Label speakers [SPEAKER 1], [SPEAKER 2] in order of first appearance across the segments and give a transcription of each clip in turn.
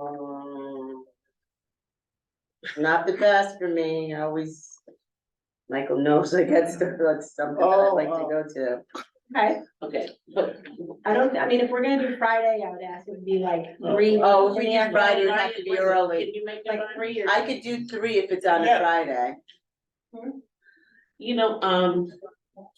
[SPEAKER 1] Um, not the best for me, I always. Michael knows I get stuff, that's something that I
[SPEAKER 2] Oh,
[SPEAKER 1] like to
[SPEAKER 2] oh.
[SPEAKER 1] go to.
[SPEAKER 3] Okay,
[SPEAKER 4] Okay, but
[SPEAKER 3] I don't, I mean, if we're gonna do Friday, I would ask it would be like three.
[SPEAKER 1] Oh, if we
[SPEAKER 3] in the
[SPEAKER 1] do
[SPEAKER 3] afternoon,
[SPEAKER 1] Friday, it'd have to be early.
[SPEAKER 4] can you make
[SPEAKER 3] Like
[SPEAKER 4] that on?
[SPEAKER 3] three or.
[SPEAKER 1] I could do three if it's on a
[SPEAKER 2] Yeah.
[SPEAKER 1] Friday.
[SPEAKER 4] You know, um,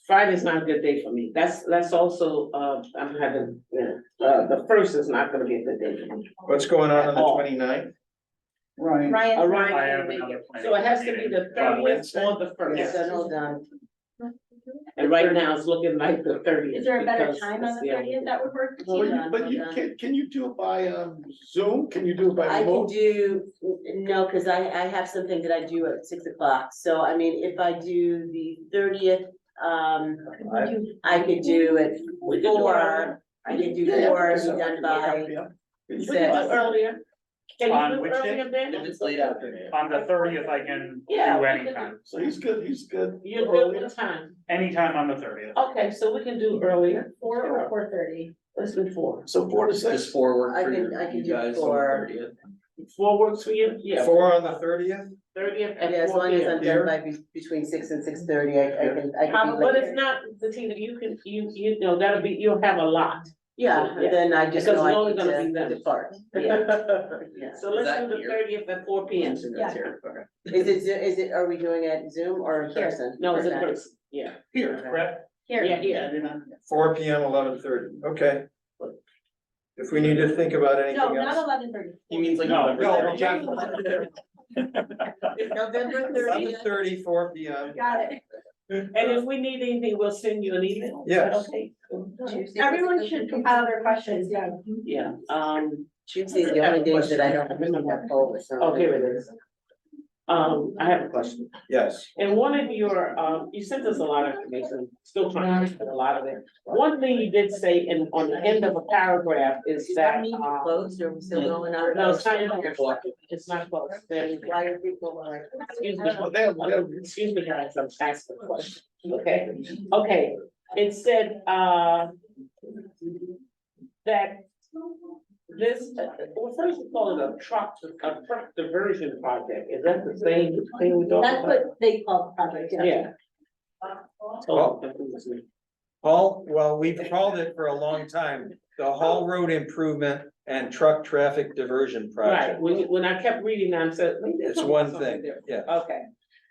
[SPEAKER 4] Friday's not a good day for me. That's, that's also, uh, I'm having, yeah, uh, the first is not gonna be a good day for me.
[SPEAKER 5] What's going on on the
[SPEAKER 1] Oh.
[SPEAKER 4] At all.
[SPEAKER 5] 29th?
[SPEAKER 2] Right.
[SPEAKER 3] Ryan's-
[SPEAKER 4] Orion
[SPEAKER 2] I have
[SPEAKER 4] can't make
[SPEAKER 2] another
[SPEAKER 4] it.
[SPEAKER 2] planning
[SPEAKER 4] So it has to be
[SPEAKER 2] meeting
[SPEAKER 4] the
[SPEAKER 2] on
[SPEAKER 4] thirtieth
[SPEAKER 2] Wednesday.
[SPEAKER 4] or the first.
[SPEAKER 1] So hold on,
[SPEAKER 4] And right now it's looking like the thirtieth.
[SPEAKER 3] Is there a better time on the thirtieth that would work?
[SPEAKER 1] Hold on,
[SPEAKER 2] But you,
[SPEAKER 1] hold on.
[SPEAKER 2] can, can you do it by, um, Zoom? Can you do it by
[SPEAKER 1] I can
[SPEAKER 2] remote?
[SPEAKER 1] do, no, cause I, I have something that I do at six o'clock, so I mean, if I do the thirtieth, um, I could do it
[SPEAKER 4] We could do
[SPEAKER 1] four.
[SPEAKER 4] earlier.
[SPEAKER 1] I could do
[SPEAKER 2] Yeah, yeah,
[SPEAKER 1] four,
[SPEAKER 2] so-
[SPEAKER 1] be done
[SPEAKER 2] yeah,
[SPEAKER 1] by,
[SPEAKER 2] yeah.
[SPEAKER 4] We could
[SPEAKER 2] You can
[SPEAKER 4] do
[SPEAKER 2] do
[SPEAKER 1] six.
[SPEAKER 4] it
[SPEAKER 2] it
[SPEAKER 4] earlier. Can
[SPEAKER 6] On
[SPEAKER 4] you do
[SPEAKER 6] which
[SPEAKER 4] it
[SPEAKER 6] day?
[SPEAKER 4] earlier
[SPEAKER 6] If
[SPEAKER 4] then?
[SPEAKER 6] it's late afternoon.
[SPEAKER 4] Um,
[SPEAKER 6] On the thirtieth, I can do
[SPEAKER 4] Yeah, we can do-
[SPEAKER 6] anytime,
[SPEAKER 2] by- So he's good, he's good.
[SPEAKER 4] You're
[SPEAKER 2] Earlier.
[SPEAKER 4] good with time.
[SPEAKER 6] anytime on the thirtieth.
[SPEAKER 4] Okay, so we can do earlier.
[SPEAKER 3] Four or four thirty?
[SPEAKER 4] Let's do four.
[SPEAKER 2] So four to
[SPEAKER 6] Just
[SPEAKER 2] six.
[SPEAKER 6] four work
[SPEAKER 1] I
[SPEAKER 6] for
[SPEAKER 1] can-
[SPEAKER 6] your-
[SPEAKER 1] I can
[SPEAKER 6] you
[SPEAKER 1] do
[SPEAKER 6] guys on the
[SPEAKER 1] four.
[SPEAKER 6] 30th?
[SPEAKER 4] Four works for you? Yeah.
[SPEAKER 5] Four on the thirtieth?
[SPEAKER 4] Thirtieth
[SPEAKER 1] yeah,
[SPEAKER 4] at
[SPEAKER 1] as
[SPEAKER 4] four
[SPEAKER 1] long
[SPEAKER 4] P
[SPEAKER 1] as
[SPEAKER 4] M.
[SPEAKER 1] I'm done by be- between six and six thirty, I, I can, I can
[SPEAKER 4] Um,
[SPEAKER 1] be
[SPEAKER 4] but
[SPEAKER 1] like.
[SPEAKER 4] if not, Tina, you can, you, you know, that'll be, you'll have a lot.
[SPEAKER 1] Yeah,
[SPEAKER 4] Yeah.
[SPEAKER 1] then I just
[SPEAKER 4] Because
[SPEAKER 1] know
[SPEAKER 4] it's
[SPEAKER 1] I
[SPEAKER 4] only gonna be
[SPEAKER 1] need
[SPEAKER 4] them.
[SPEAKER 1] to depart, yeah.
[SPEAKER 4] So
[SPEAKER 6] Is
[SPEAKER 4] let's
[SPEAKER 6] that
[SPEAKER 4] do the
[SPEAKER 6] here?
[SPEAKER 4] thirtieth at four P M.
[SPEAKER 3] Yeah.
[SPEAKER 6] Okay.
[SPEAKER 1] Is it, Zo- is it, are we doing it Zoom or in
[SPEAKER 3] Here.
[SPEAKER 1] person?
[SPEAKER 4] No, it's in
[SPEAKER 1] Okay.
[SPEAKER 4] person, yeah.
[SPEAKER 2] Here,
[SPEAKER 6] Correct.
[SPEAKER 3] Here.
[SPEAKER 4] Yeah, yeah.
[SPEAKER 2] you're not-
[SPEAKER 5] Four P M, eleven thirty, okay. If we need to think about
[SPEAKER 3] No,
[SPEAKER 5] anything
[SPEAKER 3] not
[SPEAKER 5] else.
[SPEAKER 3] eleven thirty.
[SPEAKER 6] He means like.
[SPEAKER 2] No,
[SPEAKER 6] November
[SPEAKER 2] no,
[SPEAKER 6] 30th.
[SPEAKER 1] November
[SPEAKER 5] Eleven
[SPEAKER 1] thirtieth,
[SPEAKER 5] thirty, four P M.
[SPEAKER 3] Got it.
[SPEAKER 4] And if we need anything, we'll send you an email. Is that
[SPEAKER 5] Yes.
[SPEAKER 4] Okay.
[SPEAKER 1] Tuesday.
[SPEAKER 3] Everyone should compile their questions, yeah.
[SPEAKER 4] Yeah, um,
[SPEAKER 1] Tuesday's the only day that I don't have COVID, so.
[SPEAKER 4] okay, it is. Um, I have a question.
[SPEAKER 5] Yes,
[SPEAKER 4] And one of your, um, you sent us a lot of information, still trying to get a lot of it. One thing you did say in, on the end of a paragraph is
[SPEAKER 1] I
[SPEAKER 4] that,
[SPEAKER 1] need to
[SPEAKER 4] uh,
[SPEAKER 1] close, or we're still going on.
[SPEAKER 4] no, it's not, it's not close. There-
[SPEAKER 1] Why are people like?
[SPEAKER 4] Excuse me.
[SPEAKER 2] Well, that- that-
[SPEAKER 4] excuse me, guys, I'm asking a question, okay, okay, it said, uh. That this, well, first we call it a truck, a truck diversion project, is that the same thing we talked
[SPEAKER 3] That's
[SPEAKER 4] about?
[SPEAKER 3] what they call the project, yeah.
[SPEAKER 4] Yeah. Oh, that was me.
[SPEAKER 5] Hall, well, we've called it for a long time, the Hall Road Improvement and Truck Traffic Diversion
[SPEAKER 4] Right,
[SPEAKER 5] Project.
[SPEAKER 4] when, you- when I kept reading, I said. wait, they're
[SPEAKER 5] It's
[SPEAKER 4] talking
[SPEAKER 5] one
[SPEAKER 4] about something
[SPEAKER 5] thing,
[SPEAKER 4] different. Oh.
[SPEAKER 5] yeah.
[SPEAKER 4] Okay,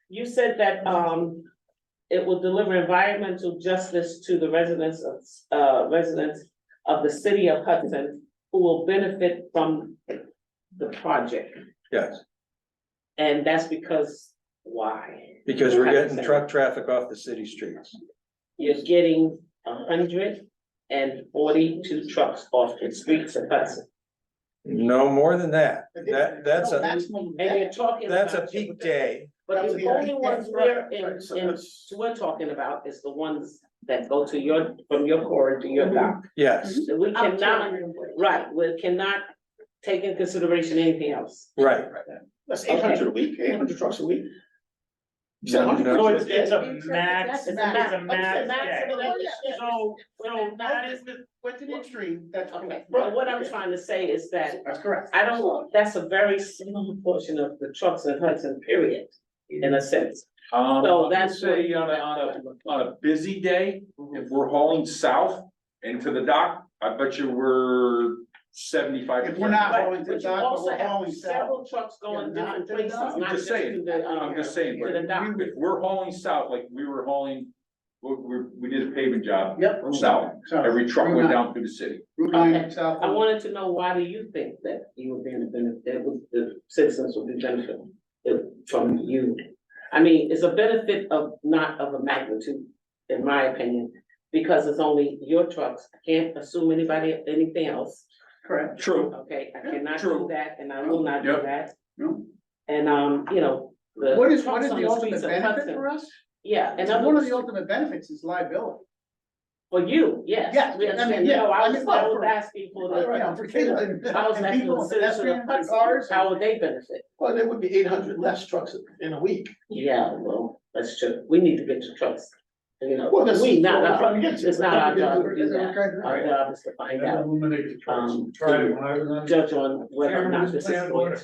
[SPEAKER 4] you said that, um, it will deliver environmental justice to the residents of, uh, residents of the city of Hudson who will benefit from the project,
[SPEAKER 5] Yes,
[SPEAKER 4] and that's because why?
[SPEAKER 5] because we're getting truck traffic off the city streets.
[SPEAKER 4] You're getting hundred and forty-two trucks off the streets of Hudson,
[SPEAKER 5] No more than that, that, that's a,
[SPEAKER 2] Maximum.
[SPEAKER 4] and you're talking about.
[SPEAKER 5] that's a peak day.
[SPEAKER 4] But
[SPEAKER 2] That's
[SPEAKER 4] the
[SPEAKER 2] the
[SPEAKER 4] only
[SPEAKER 2] idea.
[SPEAKER 4] ones we're
[SPEAKER 2] Right,
[SPEAKER 4] in,
[SPEAKER 2] right, so
[SPEAKER 4] in,
[SPEAKER 2] that's-
[SPEAKER 4] we're talking about is the ones that go to your, from your core to
[SPEAKER 2] Mm-hmm.
[SPEAKER 4] your dock.
[SPEAKER 5] Yes,
[SPEAKER 4] So We
[SPEAKER 3] Up to
[SPEAKER 4] cannot,
[SPEAKER 3] 140.
[SPEAKER 4] right, we cannot take in consideration anything else.
[SPEAKER 5] right.
[SPEAKER 2] That's eight hundred a week, eight hundred trucks a week. You said
[SPEAKER 5] No.
[SPEAKER 2] 100
[SPEAKER 6] So
[SPEAKER 2] trucks
[SPEAKER 6] it's,
[SPEAKER 2] a
[SPEAKER 6] it's a
[SPEAKER 3] It's a
[SPEAKER 6] max, it's
[SPEAKER 3] max.
[SPEAKER 6] a max, yeah. So, so that is the,
[SPEAKER 2] What's an extreme? That's.
[SPEAKER 4] Okay, but what I'm trying to say is that
[SPEAKER 2] That's correct.
[SPEAKER 4] I don't, that's a very small portion of the trucks in Hudson, period, in a sense.
[SPEAKER 7] Um,
[SPEAKER 4] So
[SPEAKER 7] I would
[SPEAKER 4] that's what-
[SPEAKER 7] say on a, on a, on a busy day, if we're hauling south into the dock, I bet you we're seventy-five.
[SPEAKER 2] If we're not
[SPEAKER 4] But-
[SPEAKER 2] hauling to
[SPEAKER 4] but
[SPEAKER 2] the
[SPEAKER 4] you
[SPEAKER 2] dock,
[SPEAKER 4] also
[SPEAKER 2] but we're
[SPEAKER 4] have
[SPEAKER 2] hauling south.
[SPEAKER 4] Several trucks going
[SPEAKER 2] Yeah,
[SPEAKER 4] different
[SPEAKER 2] not to the
[SPEAKER 4] places,
[SPEAKER 2] dock.
[SPEAKER 4] not
[SPEAKER 7] I'm
[SPEAKER 4] just
[SPEAKER 7] just
[SPEAKER 4] to
[SPEAKER 7] saying,
[SPEAKER 4] the, um,
[SPEAKER 7] I'm just saying,
[SPEAKER 4] to
[SPEAKER 7] but
[SPEAKER 4] the dock.
[SPEAKER 7] if we're hauling south, like we were hauling, we, we, we did a paving job
[SPEAKER 2] Yep.
[SPEAKER 7] south.
[SPEAKER 2] Sorry.
[SPEAKER 7] Every truck
[SPEAKER 2] Route
[SPEAKER 7] went
[SPEAKER 2] nine-
[SPEAKER 7] down through the city.
[SPEAKER 2] Route nine,
[SPEAKER 4] Okay.
[SPEAKER 2] south.
[SPEAKER 4] I wanted to know, why do you think that you were being a benefit, that was- the citizens would be benefiting from you? I mean, it's a benefit of, not of a magnitude, in my opinion, because it's only your trucks, I can't assume anybody, anything else,
[SPEAKER 2] Correct.
[SPEAKER 7] True.
[SPEAKER 4] okay? I cannot do
[SPEAKER 7] True.
[SPEAKER 4] that, and I will not do
[SPEAKER 7] Yep.
[SPEAKER 4] that,
[SPEAKER 2] No.
[SPEAKER 4] and, um, you know, the.
[SPEAKER 2] What is, what
[SPEAKER 4] trucks
[SPEAKER 2] is
[SPEAKER 4] on
[SPEAKER 2] the ultimate
[SPEAKER 4] streets of
[SPEAKER 2] benefit
[SPEAKER 4] Hudson-
[SPEAKER 2] for us?
[SPEAKER 4] Yeah, and
[SPEAKER 2] One of
[SPEAKER 4] I'm,
[SPEAKER 2] the ultimate benefits is liability.
[SPEAKER 4] for you, yes.
[SPEAKER 2] Yeah,
[SPEAKER 4] we
[SPEAKER 2] I mean,
[SPEAKER 4] understand.
[SPEAKER 2] yeah,
[SPEAKER 4] No, I
[SPEAKER 2] I
[SPEAKER 4] was,
[SPEAKER 2] mean,
[SPEAKER 4] I
[SPEAKER 2] well,
[SPEAKER 4] was
[SPEAKER 2] for-
[SPEAKER 4] asking for the.
[SPEAKER 2] Right, for kids and-
[SPEAKER 4] I was
[SPEAKER 2] and
[SPEAKER 4] asking
[SPEAKER 2] people
[SPEAKER 4] the
[SPEAKER 2] and
[SPEAKER 4] citizens of
[SPEAKER 2] pedestrians and
[SPEAKER 4] Hudson,
[SPEAKER 2] cars and-
[SPEAKER 4] how would they benefit?
[SPEAKER 2] Well, there would be eight hundred less trucks in a week.
[SPEAKER 4] Yeah, well, that's true. We need to get to trucks. You know,
[SPEAKER 2] Well, that's-
[SPEAKER 4] we not,
[SPEAKER 2] that's what I'm
[SPEAKER 4] not,
[SPEAKER 2] getting to.
[SPEAKER 4] it's not our job to do
[SPEAKER 2] That's
[SPEAKER 4] that.
[SPEAKER 2] okay.
[SPEAKER 4] Our job is to find out,
[SPEAKER 6] eliminate the
[SPEAKER 4] trucks.
[SPEAKER 6] trucks.
[SPEAKER 4] judge on whether or not this is. going to-